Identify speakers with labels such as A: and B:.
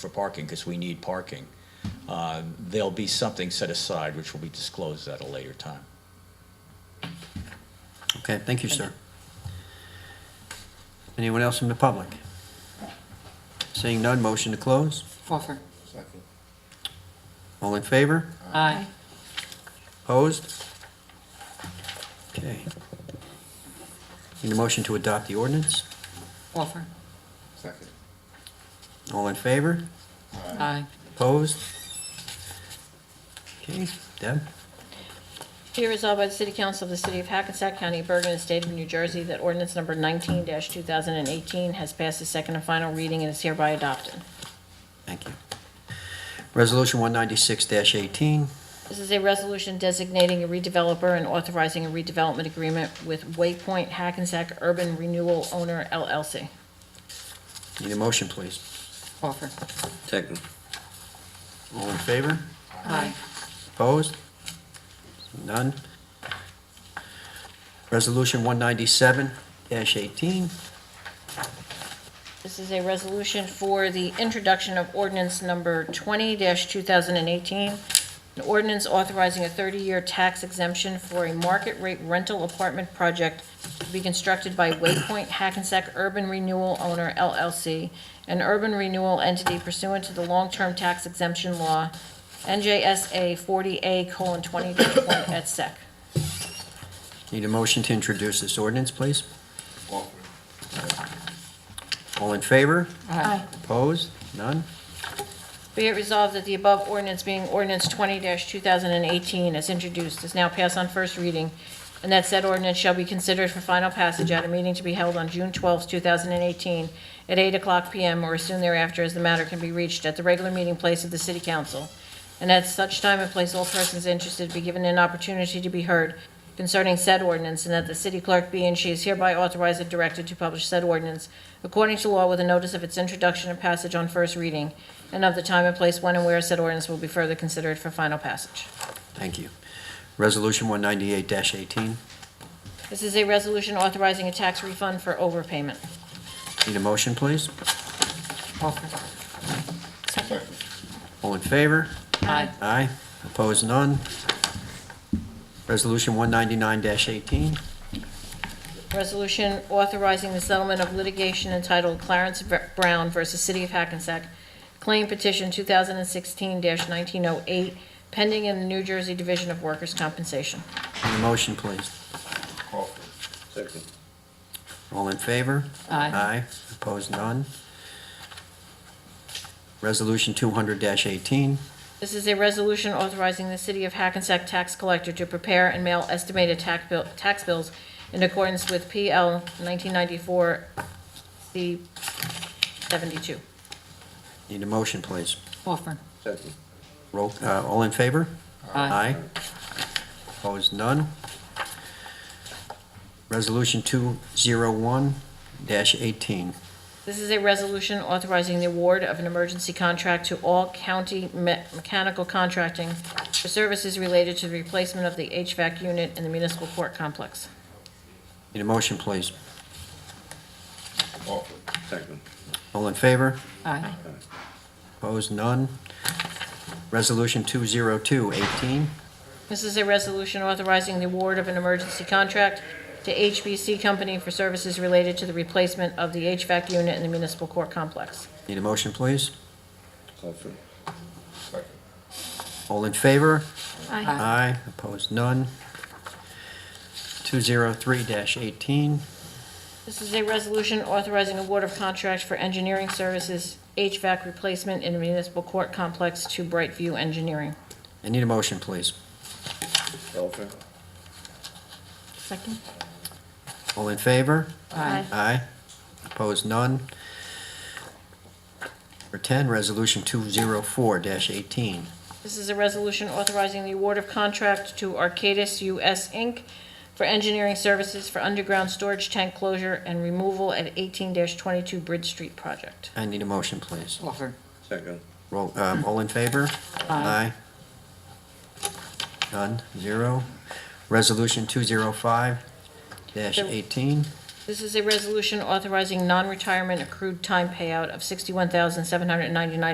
A: for parking, because we need parking. Uh, There'll be something set aside, which will be disclosed at a later time.
B: Okay, thank you, sir. Anyone else in the public? Seeing none, motion to close.
C: Offer.
D: Second.
B: All in favor?
C: Aye.
B: Opposed? Okay. Need a motion to adopt the ordinance?
C: Offer.
D: Second.
B: All in favor?
C: Aye.
B: Opposed? Okay, Deb?
E: Be resolved by the City Council of the City of Hackensack County, of Bergen, and State of New Jersey that ordinance number 19-2018 has passed its second and final reading and is hereby adopted.
B: Thank you. Resolution 196-18.
E: This is a resolution designating a redeveloper and authorizing a redevelopment agreement with Waypoint Hackensack Urban Renewal Owner LLC.
B: Need a motion, please.
C: Offer.
F: Second.
B: All in favor?
C: Aye.
B: Opposed? None. Resolution 197-18.
E: This is a resolution for the introduction of ordinance number 20-2018, an ordinance authorizing a 30-year tax exemption for a market-rate rental apartment project to be constructed by Waypoint Hackensack Urban Renewal Owner LLC, an urban renewal entity pursuant to the long-term tax exemption law, NJSA 40A:20-1 et sec.
B: Need a motion to introduce this ordinance, please.
D: Offer.
B: All in favor?
C: Aye.
B: Opposed? None?
E: Be it resolved that the above ordinance being ordinance 20-2018 as introduced is now passed on first reading, and that said ordinance shall be considered for final passage at a meeting to be held on June 12, 2018, at 8 o'clock PM or as soon thereafter, as the matter can be reached at the regular meeting place of the city council. And at such time and place, all persons interested be given an opportunity to be heard concerning said ordinance, and that the city clerk be and she is hereby authorized and directed to publish said ordinance according to law with a notice of its introduction and passage on first reading, and of the time and place when and where said ordinance will be further considered for final passage.
B: Thank you. Resolution 198-18.
E: This is a resolution authorizing a tax refund for overpayment.
B: Need a motion, please.
C: Offer.
D: Second.
B: All in favor?
C: Aye.
B: Aye. Opposed? None? Resolution 199-18.
E: Resolution authorizing the settlement of litigation entitled Clarence V- Brown versus City of Hackensack, claim petition 2016-1908, pending in the New Jersey Division of Workers' Compensation.
B: Need a motion, please.
D: Offer.
F: Second.
B: All in favor?
C: Aye.
B: Aye. Opposed? None? Resolution 200-18.
E: This is a resolution authorizing the City of Hackensack Tax Collector to prepare and mail estimated tax bill, tax bills in accordance with PL 1994 C 72.
B: Need a motion, please.
C: Offer.
F: Second.
B: Roll, uh, all in favor?
C: Aye.
B: Opposed, none. Resolution 201-18.
E: This is a resolution authorizing the award of an emergency contract to all county me- mechanical contracting for services related to the replacement of the HVAC unit in the municipal court complex.
B: Need a motion, please.
D: Offer.
F: Second.
B: All in favor?
C: Aye.
B: Opposed, none. Resolution 202-18.
E: This is a resolution authorizing the award of an emergency contract to HBC Company for services related to the replacement of the HVAC unit in the municipal court complex.
B: Need a motion, please.
F: Offer.
D: Second.
B: All in favor?
C: Aye.
B: Aye. Opposed, none. 203-18.
E: This is a resolution authorizing award of contract for engineering services HVAC replacement in the municipal court complex to Brightview Engineering.
B: I need a motion, please.
F: Offer.
E: Second.
B: All in favor?
C: Aye.
B: Aye. Opposed, none. Number 10, Resolution 204-18.
E: This is a resolution authorizing the award of contract to Arcadis US Inc. for engineering services for underground storage tank closure and removal at 18-22 Bridge Street project.
B: I need a motion, please.
C: Offer.
F: Second.
B: Roll, um, all in favor? Aye.
C: Aye.
B: None, zero. Resolution 205-18.
E: This is a resolution authorizing non-retirement accrued time payout of $61,799